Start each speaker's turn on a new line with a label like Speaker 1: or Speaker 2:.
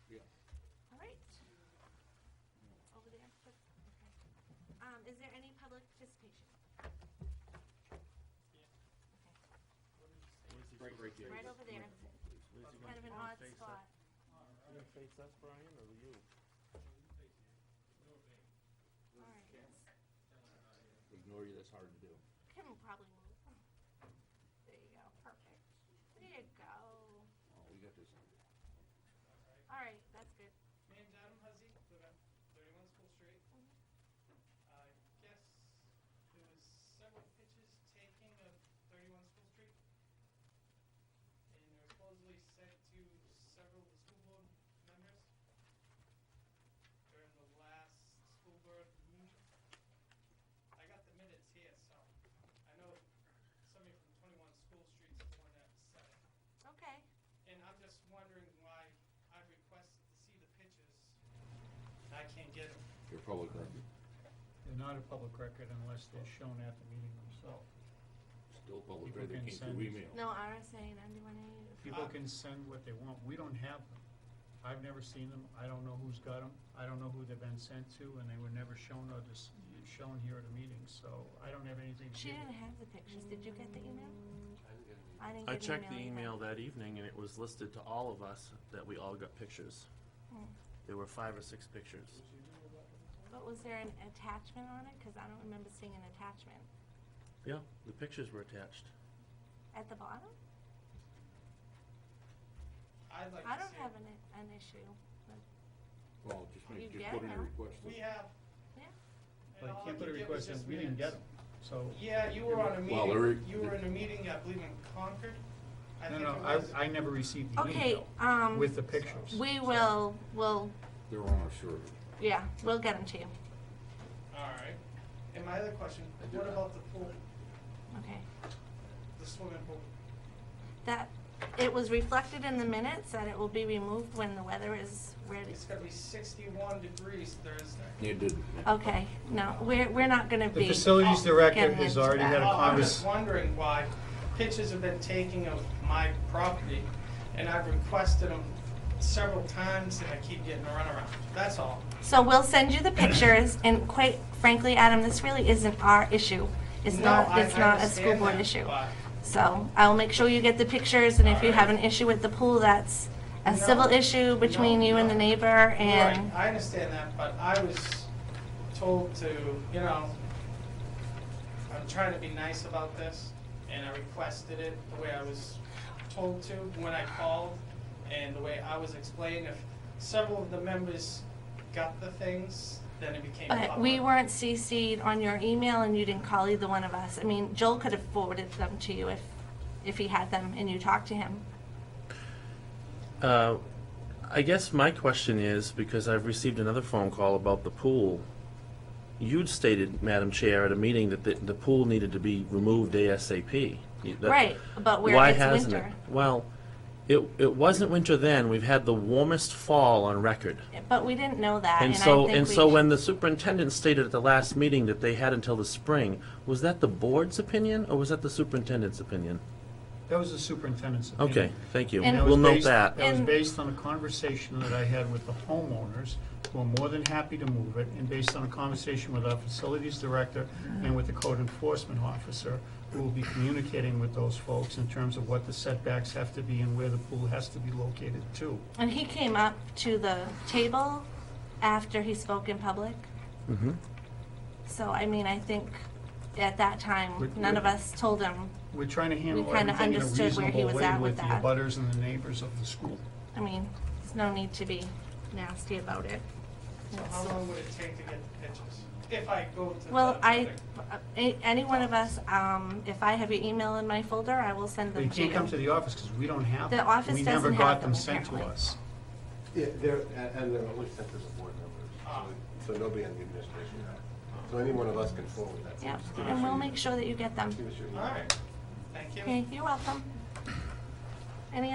Speaker 1: Um,
Speaker 2: right there.
Speaker 1: Right over there, kind of an odd spot.
Speaker 3: You gonna face us, Brian, or you?
Speaker 1: All right, let's-
Speaker 2: Ignore you, that's hard to do.
Speaker 1: Kim will probably move. There you go, perfect. There you go.
Speaker 2: Oh, we got this.
Speaker 1: All right, that's good.
Speaker 4: My name's Adam Huzzy, live at 31 School Street. I guess there was several pitches taking of 31 School Street. Uh, And they're supposedly sent to several of the school board members during the last school board meeting. I got the minutes here, so I know somebody from 21 School Street's the one that said it.
Speaker 1: Okay,
Speaker 4: And I'm just wondering why I requested to see the pictures. I can't get them.
Speaker 2: You're public record.
Speaker 5: They're not a public record unless they're shown at the meeting themselves.
Speaker 2: Still public
Speaker 5: People
Speaker 2: record,
Speaker 5: can
Speaker 2: came through
Speaker 5: send-
Speaker 2: email.
Speaker 1: no RSA ninety-one A.
Speaker 4: Ah.
Speaker 5: People can send what they want, we don't have them. I've never seen them, I don't know who's got them, I don't know who they've been sent to, and they were never shown or dis shown here at a meeting, so I don't have anything to
Speaker 1: She
Speaker 5: give
Speaker 1: didn't
Speaker 5: you.
Speaker 1: have the pictures. Did you get the email? I didn't
Speaker 6: I
Speaker 1: get
Speaker 6: checked the
Speaker 1: either.
Speaker 6: email that evening, and it was listed to all of us that we all got pictures.
Speaker 1: Hmm.
Speaker 6: There were five or six pictures.
Speaker 1: But was there an attachment on it? Because I don't remember seeing an attachment.
Speaker 6: Yeah, the pictures were attached.
Speaker 1: At the bottom?
Speaker 4: I'd like to see.
Speaker 1: I don't
Speaker 4: it.
Speaker 1: have an, an issue.
Speaker 2: Well, just
Speaker 1: You
Speaker 2: make,
Speaker 1: get
Speaker 2: just put in a
Speaker 1: them.
Speaker 2: request.
Speaker 4: We have.
Speaker 1: Yeah,
Speaker 4: and
Speaker 5: But
Speaker 4: all
Speaker 5: you
Speaker 4: I
Speaker 5: can't put a
Speaker 4: could get was
Speaker 5: request in,
Speaker 4: just
Speaker 5: we didn't get them,
Speaker 4: minutes.
Speaker 5: so.
Speaker 4: Yeah, you were on a
Speaker 2: Well, there is-
Speaker 4: meeting, you were in a meeting, I believe in Concord. I
Speaker 5: No,
Speaker 4: think
Speaker 5: no,
Speaker 4: it was.
Speaker 5: I, I never received the
Speaker 1: Okay,
Speaker 5: email
Speaker 1: um,
Speaker 5: with the pictures.
Speaker 1: we will, we'll,
Speaker 2: They're on our server.
Speaker 1: yeah, we'll get them to you.
Speaker 4: All right. And my other question, what about the pool,
Speaker 1: Okay.
Speaker 4: the swimming pool?
Speaker 1: That, it was reflected in the minutes that it will be removed when the weather is ready.
Speaker 4: It's gonna be sixty-one degrees Thursday.
Speaker 2: You did.
Speaker 1: Okay, no, we're, we're not gonna be.
Speaker 5: The facilities director
Speaker 1: getting
Speaker 5: has
Speaker 1: into
Speaker 5: already had a
Speaker 1: that.
Speaker 4: Well, I'm just
Speaker 5: conversation.
Speaker 4: wondering why pictures have been taken of my property, and I've requested them several times, and I keep getting a runaround. That's all.
Speaker 1: So we'll send you the pictures, and quite frankly, Adam, this really isn't our issue. It's
Speaker 4: No,
Speaker 1: not,
Speaker 4: I
Speaker 1: it's not a school
Speaker 4: understand
Speaker 1: board
Speaker 4: that,
Speaker 1: issue.
Speaker 4: but-
Speaker 1: So I'll make sure you get the pictures, and if you
Speaker 4: Alright.
Speaker 1: have an issue with the pool, that's a
Speaker 4: No,
Speaker 1: civil issue between
Speaker 4: no,
Speaker 1: you and
Speaker 4: no.
Speaker 1: the neighbor, and,
Speaker 4: Right, I understand that, but I was told to, you know, I'm trying to be nice about this, and I requested it the way I was told to when I called, and the way I was explained. If several of the members got the things, then it became
Speaker 1: but we
Speaker 4: public.
Speaker 1: weren't CC'd on your email, and you didn't call either one of us. I mean, Joel could have forwarded them to you if, if he had them and you talked to him.
Speaker 6: Uh, I guess my question is, because I've received another phone call about the pool. You'd stated, Madam Chair, at a meeting that the, the pool needed to be removed ASAP. You- that-
Speaker 1: Right, but where
Speaker 6: Why
Speaker 1: it's
Speaker 6: hasn't
Speaker 1: winter.
Speaker 6: it? Well, it, it wasn't winter then. We've had the warmest fall on record.
Speaker 1: But we didn't know that, and
Speaker 6: And
Speaker 1: I
Speaker 6: so,
Speaker 1: think
Speaker 6: and
Speaker 1: we
Speaker 6: so
Speaker 1: sh-
Speaker 6: when the superintendent stated at the last meeting that they had until the spring, was that the board's opinion or was that the superintendent's opinion?
Speaker 5: That was the superintendent's opinion.
Speaker 6: Okay, thank you.
Speaker 1: And-
Speaker 5: That was
Speaker 6: We'll note
Speaker 5: based-
Speaker 6: that.
Speaker 5: That was
Speaker 1: And-
Speaker 5: based on a conversation that I had with the homeowners, who are more than happy to move it, and based on a conversation with our facilities director and with the code enforcement officer, who will be communicating with those folks in terms of what the setbacks have to be and where the pool has to be located too.
Speaker 1: And he came up to the table after he spoke in public.
Speaker 6: Mhm.
Speaker 1: So, I mean, I think at that time,
Speaker 5: Would-
Speaker 1: none
Speaker 5: would-
Speaker 1: of us told him.
Speaker 5: We're trying to handle
Speaker 1: kinda
Speaker 5: everything in a
Speaker 1: understood where he was
Speaker 5: reasonable way
Speaker 1: at
Speaker 5: with
Speaker 1: with
Speaker 5: the
Speaker 1: that.
Speaker 5: abutters and the neighbors of the school.
Speaker 1: I mean, there's no need to be nasty about it.
Speaker 4: So How long would it take to get the pictures? If I go to the.
Speaker 1: Well, I,
Speaker 4: thing?
Speaker 1: a- any one of us, um, if I have your email in my folder, I will send
Speaker 5: They
Speaker 1: them to
Speaker 5: can't come to
Speaker 1: you.
Speaker 5: the office because we don't have
Speaker 1: The
Speaker 5: them.
Speaker 1: office
Speaker 5: We never
Speaker 1: doesn't
Speaker 5: got
Speaker 1: have
Speaker 5: them
Speaker 1: them,
Speaker 5: sent to
Speaker 1: apparently.
Speaker 5: us.
Speaker 7: Yeah, they're, and and they're only sent as a board
Speaker 1: Ah.
Speaker 7: member, so so nobody on the administration now. So any one of us can forward that.
Speaker 1: Yep,
Speaker 7: Just give us
Speaker 1: and
Speaker 7: your-
Speaker 1: we'll make sure that you get them.
Speaker 7: Give us your.
Speaker 4: All right, thank you.
Speaker 1: Okay, you're welcome. Any